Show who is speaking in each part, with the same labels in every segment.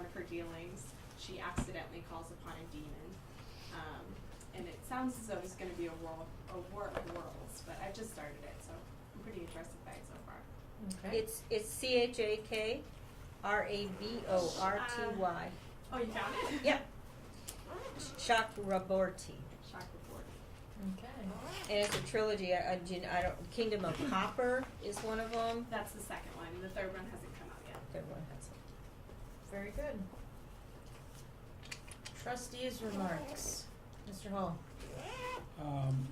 Speaker 1: of her dealings, she accidentally calls upon a demon. Um, and it sounds as though it's going to be a world, a war of worlds, but I've just started it, so I'm pretty interested by it so far.
Speaker 2: Okay.
Speaker 3: It's it's C H A K R A B O R T Y.
Speaker 1: Oh, you found it?
Speaker 3: Yep. Chakraborty.
Speaker 1: Shock report.
Speaker 2: okay.
Speaker 3: And it's a trilogy. I, I, gen- I don't, Kingdom of Copper is one of them.
Speaker 1: That's the second one. The third one hasn't come out yet.
Speaker 3: Third one has it.
Speaker 2: Very good. Trustees' remarks. Mr. Hall.
Speaker 4: Um,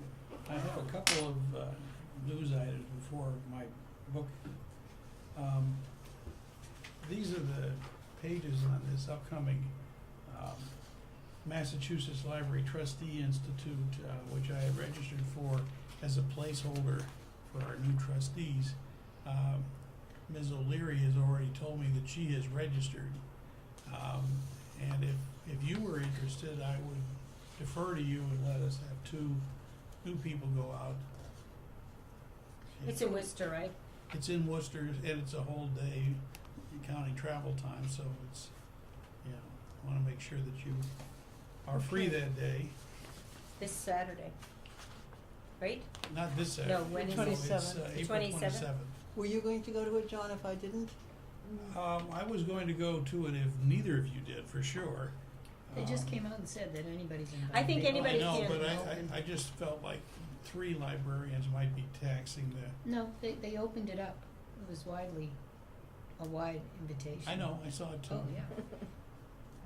Speaker 4: I have a couple of, uh, news items before my book. Um, these are the pages on this upcoming, um, Massachusetts Library Trustee Institute, uh, which I have registered for as a placeholder for our new trustees. Um, Ms. O'Leary has already told me that she has registered. Um, and if, if you were interested, I would defer to you and let us have two, two people go out.
Speaker 3: It's in Worcester, right?
Speaker 4: It's in Worcester, and it's a whole day counting travel time, so it's, you know, wanna make sure that you are free
Speaker 3: Okay.
Speaker 4: that day,
Speaker 3: This Saturday. Right?
Speaker 4: not this Saturday.
Speaker 3: No, when
Speaker 4: no,
Speaker 3: is it?
Speaker 4: it's, uh,
Speaker 3: The 27th?
Speaker 4: April twenty-seventh.
Speaker 5: Were you going to go to it, John, if I didn't?
Speaker 4: Um, I was going to go to it if neither of you did, for sure.
Speaker 6: They just
Speaker 4: Um,
Speaker 6: came out and said that anybody's invited.
Speaker 3: I think
Speaker 6: They all-
Speaker 3: anybody
Speaker 4: I know,
Speaker 3: can.
Speaker 4: but I, I, I just felt like three librarians might be taxing the,
Speaker 6: No, they, they opened it up. It was widely, a wide invitation.
Speaker 4: I know, I saw it too.
Speaker 6: Oh, yeah.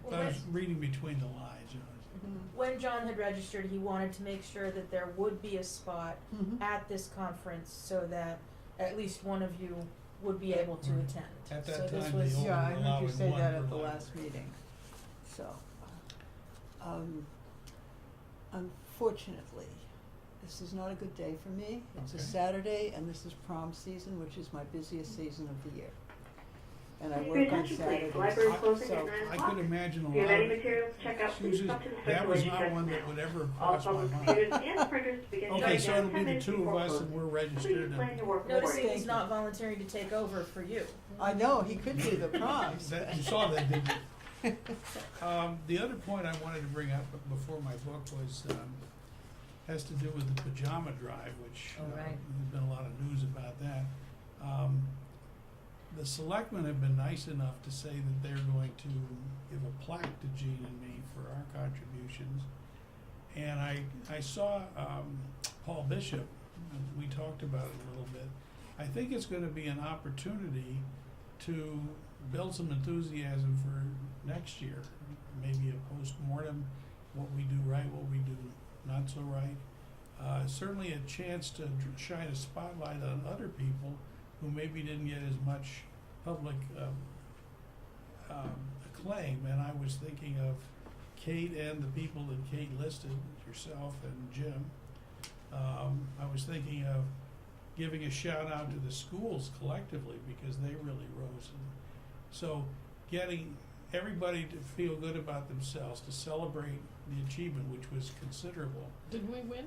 Speaker 4: But I was reading between the lines, you know.
Speaker 2: When John had registered, he wanted to make sure that there would be a spot
Speaker 5: Mm-hmm.
Speaker 2: at this conference so that at least one of you would be able to
Speaker 4: Right.
Speaker 2: attend.
Speaker 4: At
Speaker 2: So
Speaker 4: that
Speaker 2: this
Speaker 4: time,
Speaker 2: was-
Speaker 4: they
Speaker 5: Yeah, I
Speaker 4: only
Speaker 5: heard
Speaker 4: allowed
Speaker 5: you
Speaker 4: one
Speaker 5: say that
Speaker 4: per
Speaker 5: at the
Speaker 4: library.
Speaker 5: last meeting, so. um, Unfortunately, this is not a good day for me. It's a
Speaker 4: Okay.
Speaker 5: Saturday and this is prom season, which is my busiest season of the year. And I
Speaker 7: Your
Speaker 5: work on
Speaker 7: attention, please.
Speaker 5: Saturdays,
Speaker 7: Library closing at
Speaker 5: so.
Speaker 7: nine
Speaker 4: I could imagine a lot.
Speaker 7: If you have any
Speaker 4: of-
Speaker 7: materials, check out the
Speaker 4: Susan,
Speaker 7: substance
Speaker 4: that was
Speaker 7: circulation
Speaker 4: not
Speaker 7: desk
Speaker 4: one that
Speaker 7: now.
Speaker 4: would ever
Speaker 7: All
Speaker 4: cross my
Speaker 7: public
Speaker 4: mind.
Speaker 7: computers and printers begin shutting down
Speaker 4: Okay, so it'll be
Speaker 7: ten
Speaker 4: the
Speaker 7: minutes
Speaker 4: two of
Speaker 7: before
Speaker 4: us
Speaker 7: close.
Speaker 4: and we're
Speaker 7: Please
Speaker 4: registered
Speaker 7: plan
Speaker 4: and.
Speaker 7: your work
Speaker 2: Noticing
Speaker 7: accordingly.
Speaker 2: he's not volunteering to take over for you.
Speaker 5: I know, he could do the proms.
Speaker 4: That- You saw that, didn't you? Um, the other point I wanted to bring up before my book was, um, has to do with the pajama drive, which, uh,
Speaker 6: Oh, right.
Speaker 4: there's been a lot of news about that. Um, the selectmen have been nice enough to say that they're going to give a plaque to Gene and me for our contributions. And I, I saw, um, Paul Bishop, and we talked about it a little bit. I think it's gonna be an opportunity to build some enthusiasm for next year. Maybe a postmortem, what we do right, what we do not so right. Uh, certainly a chance to dr- shine a spotlight on other people who maybe didn't get as much public um, um, acclaim. And I was thinking of Kate and the people that Kate listed, yourself and Jim. Um, I was thinking of giving a shout out to the schools collectively because they really rose. And so, getting everybody to feel good about themselves, to celebrate the achievement, which was considerable.
Speaker 2: Did we win?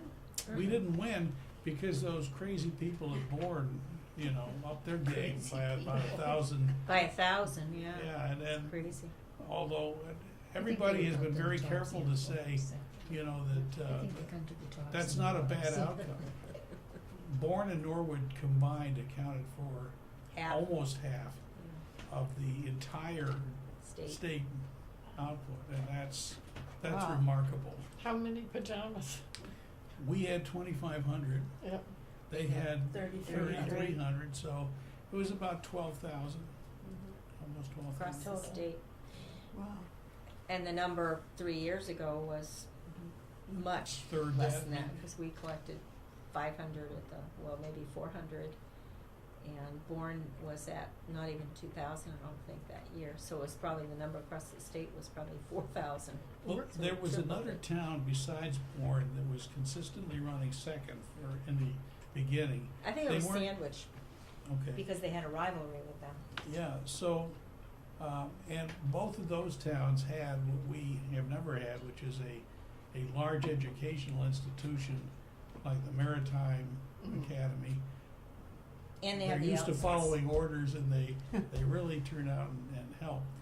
Speaker 4: We
Speaker 6: Mm-hmm.
Speaker 4: didn't win because those crazy people at Bourne, you know, up their game by about a thousand.
Speaker 3: By a thousand, yeah.
Speaker 4: Yeah, and then
Speaker 3: Crazy.
Speaker 4: although everybody has been very careful to say, you know, that
Speaker 6: I
Speaker 4: uh,
Speaker 6: think they come to the top.
Speaker 4: that's not a bad
Speaker 6: somewhere.
Speaker 4: outcome. Bourne and Norwood combined accounted for
Speaker 3: Half Mm.
Speaker 4: almost half of the entire
Speaker 3: state.
Speaker 4: state output, and that's, that's
Speaker 5: Wow.
Speaker 4: remarkable.
Speaker 8: How many pajamas?
Speaker 4: We had twenty-five hundred,
Speaker 8: Yep.
Speaker 4: they had
Speaker 2: Thirty-three
Speaker 4: thirty-three
Speaker 2: hundred.
Speaker 4: hundred, so it was about twelve thousand, almost twelve
Speaker 3: Mm-hmm. Across
Speaker 4: thousand.
Speaker 3: the
Speaker 2: Total.
Speaker 3: state.
Speaker 5: Wow,
Speaker 3: And the number three years ago was much
Speaker 4: Third
Speaker 3: less
Speaker 4: that.
Speaker 3: than that, because we collected five hundred at the, well, maybe four hundred. And Bourne was at not even two thousand, I don't think, that year, so it was probably, the number across the state was probably four thousand.
Speaker 4: Well,
Speaker 3: So
Speaker 4: there
Speaker 3: it
Speaker 4: was
Speaker 3: tripled
Speaker 4: another
Speaker 3: it.
Speaker 4: town besides Bourne that was consistently running second for, in the beginning,
Speaker 3: I think it
Speaker 4: they
Speaker 3: was
Speaker 4: weren't-
Speaker 3: Sandwich,
Speaker 4: okay.
Speaker 3: because they had a rivalry with them.
Speaker 4: Yeah, so, um, and both of those towns had what we have never had, which is a, a large educational institution like the Maritime Academy.
Speaker 3: And they had the
Speaker 4: They're used to
Speaker 3: outsource.
Speaker 4: following orders and they, they really turn out and, and help.